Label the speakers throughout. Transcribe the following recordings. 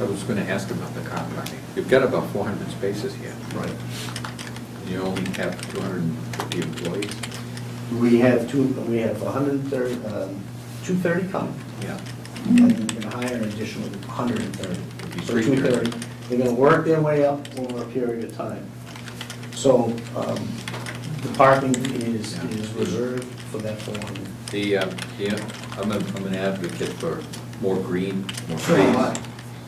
Speaker 1: I was gonna ask about the car parking. You've got about four hundred spaces here.
Speaker 2: Right.
Speaker 1: You only have two hundred and fifty employees?
Speaker 2: We have two, we have 130, um, 230 coming,
Speaker 1: Yeah.
Speaker 2: and we're gonna hire an additional 130.
Speaker 1: It'd be
Speaker 2: So
Speaker 1: 330.
Speaker 2: 230. They're gonna work their way up over a period of time. So um, the parking is,
Speaker 1: Yeah.
Speaker 2: is reserved for that 400.
Speaker 1: The, uh, yeah, I'm a, I'm an advocate for more green, more
Speaker 2: Sure, why?
Speaker 1: trees.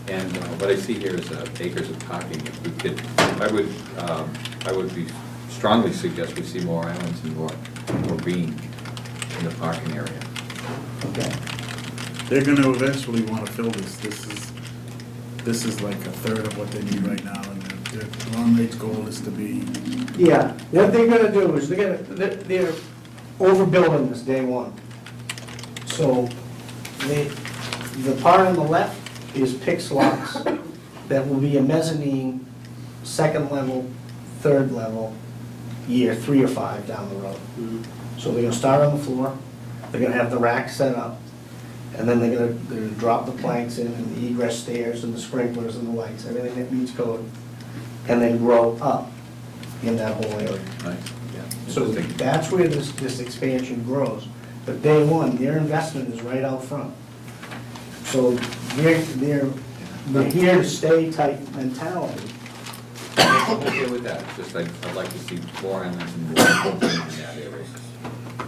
Speaker 1: And uh, what I see here is uh, acres of parking. If we could, I would, um, I would be strongly suggest we see more islands and more, more green in the parking area.
Speaker 2: Okay.
Speaker 3: They're gonna eventually wanna fill this, this is, this is like a third of what they need right now, and their, their long range goal is to be,
Speaker 2: Yeah, what they're gonna do is they're gonna, they're- they're overbuilding this day one. So the, the part on the left is PIX lots. That will be a mezzanine, second level, third level, year three or five down the road. So they're gonna start on the floor, they're gonna have the rack set up, and then they're gonna, they're gonna drop the planks in, and the egress stairs, and the sprinklers, and the lights, everything that meets code, and then grow up in that whole area.
Speaker 1: Right? Yeah.
Speaker 2: So
Speaker 1: Interesting.
Speaker 2: that's where this, this expansion grows. But day one, their investment is right out front. So they're, they're, they're here to stay type mentality.
Speaker 1: I'm okay with that, It's just I'd, I'd like to see more islands and more green in that area.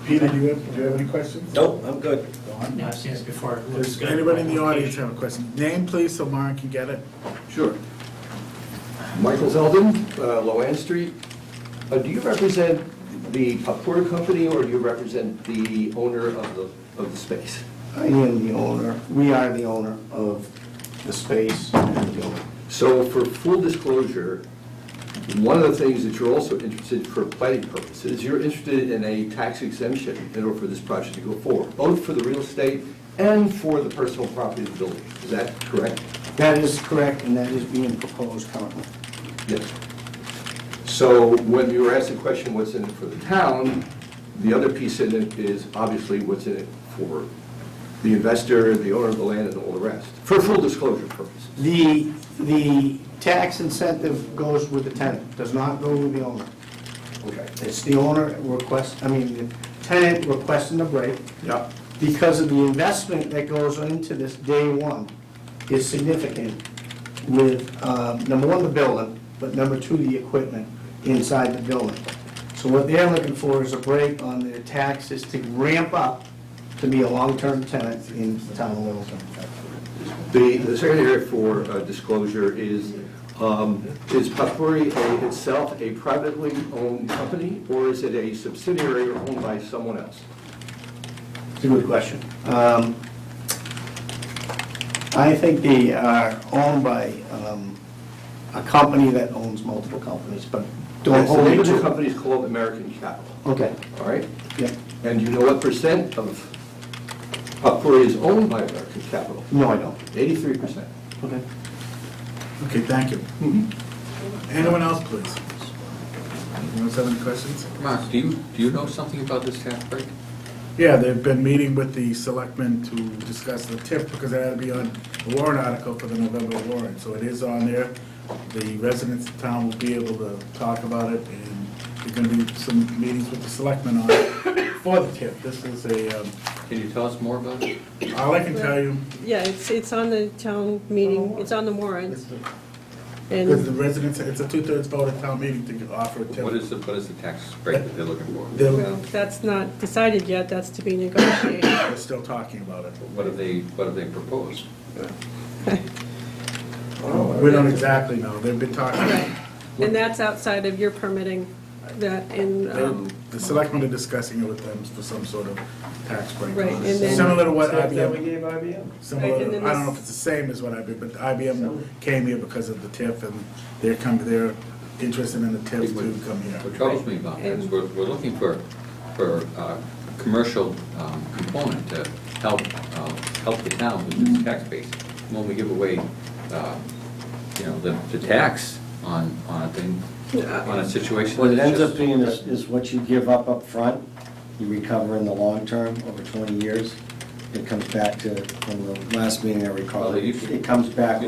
Speaker 3: Peter, do you have, do you have any questions?
Speaker 4: Nope, I'm good.
Speaker 3: Don?
Speaker 5: No, I've seen this before. It looks
Speaker 3: Does
Speaker 5: good.
Speaker 3: anybody in the audience have a question? Name please, so Mara can get it.
Speaker 6: Sure. Michael Zeldin, uh, Loan Street. Uh, Do you represent the popcorn company or do you represent the owner of the, of the space?
Speaker 2: I am the owner, we are the owner of the space and the building.
Speaker 6: So for full disclosure, one of the things that you're also interested for planning purposes, you're interested in a tax exemption in order for this project to go forward, both for the real estate and for the personal property of the building. Is that correct?
Speaker 2: That is correct, and that is being proposed currently.
Speaker 6: Yes. So when you were asked the question, what's in it for the town, the other piece in it is obviously what's in it for the investor, the owner of the land, and all the rest, for full disclosure purposes.
Speaker 2: The, the tax incentive goes with the tenant, does not go with the owner.
Speaker 6: Okay.
Speaker 2: It's the owner request, I mean, the tenant requesting a break
Speaker 6: Yep.
Speaker 2: because of the investment that goes into this day one is significant with, um, number one, the building, but number two, the equipment inside the building. So what they're looking for is a break on their taxes to ramp up to be a long-term tenant in the town of Littleton.
Speaker 6: The, the second area for uh, disclosure is, um, is Potpourri a- itself a privately owned company, or is it a subsidiary or owned by someone else?
Speaker 2: It's a good question. Um, I think they are owned by um, a company that owns multiple companies, but don't
Speaker 6: That's The
Speaker 2: hold
Speaker 6: name of the
Speaker 2: it.
Speaker 6: company is called American Capital,
Speaker 2: Okay,
Speaker 6: all right?
Speaker 2: yeah.
Speaker 6: And you know what percent of Potpourri is owned by American Capital?
Speaker 2: No, I don't.
Speaker 6: Eighty-three percent.
Speaker 2: Okay.
Speaker 3: Okay, thank you. Mm-hmm. Anyone else, please? Anyone else have any questions?
Speaker 1: Mark, do you, do you know something about this tax break?
Speaker 3: Yeah, they've been meeting with the selectmen to discuss the tip, because that had to be on the warrant article for the November warrant, so it is on there. The residents of town will be able to talk about it, and there're gonna be some meetings with the selectmen on it for the tip. This is a, um,
Speaker 1: Can you tell us more about it?
Speaker 3: all I can tell you
Speaker 7: Yeah, it's, it's on the town meeting, it's on the warrant,
Speaker 3: is the- is the
Speaker 7: and
Speaker 3: residents, it's a two-thirds vote at town meeting to offer a tip.
Speaker 1: What is the, what is the tax break that they're looking for?
Speaker 3: They're,
Speaker 7: well, that's not decided yet, that's to be negotiated.
Speaker 3: they're still talking about it.
Speaker 1: What have they, what have they proposed?
Speaker 3: We don't exactly know, they've been talking.
Speaker 7: Right. And that's outside of your permitting, that, and, um,
Speaker 3: They- The selectmen are discussing it with them for some sort of tax break.
Speaker 7: Right, and then-
Speaker 3: Similar to what
Speaker 4: Stuff that we
Speaker 3: IBM,
Speaker 4: gave IBM.
Speaker 3: similar,
Speaker 7: Right, and
Speaker 3: to-
Speaker 7: then
Speaker 3: I don't know
Speaker 7: this-
Speaker 3: if it's the same as what IBM, but IBM came here because of the TIF and they're coming, they're interested in the TIF to come here.
Speaker 1: What troubles me about that is we're, we're looking for, for uh commercial um, component to help, uh, help the town with its tax base. When we give away, uh, you know, the, the tax on, on a thing, on a situation.
Speaker 4: What it
Speaker 1: that's
Speaker 4: ends up
Speaker 1: just-
Speaker 4: being is, is what you give up up front, you recover in the long term, over twenty years. It comes back to, from the last meeting I recall,
Speaker 1: Well, you-
Speaker 4: it comes back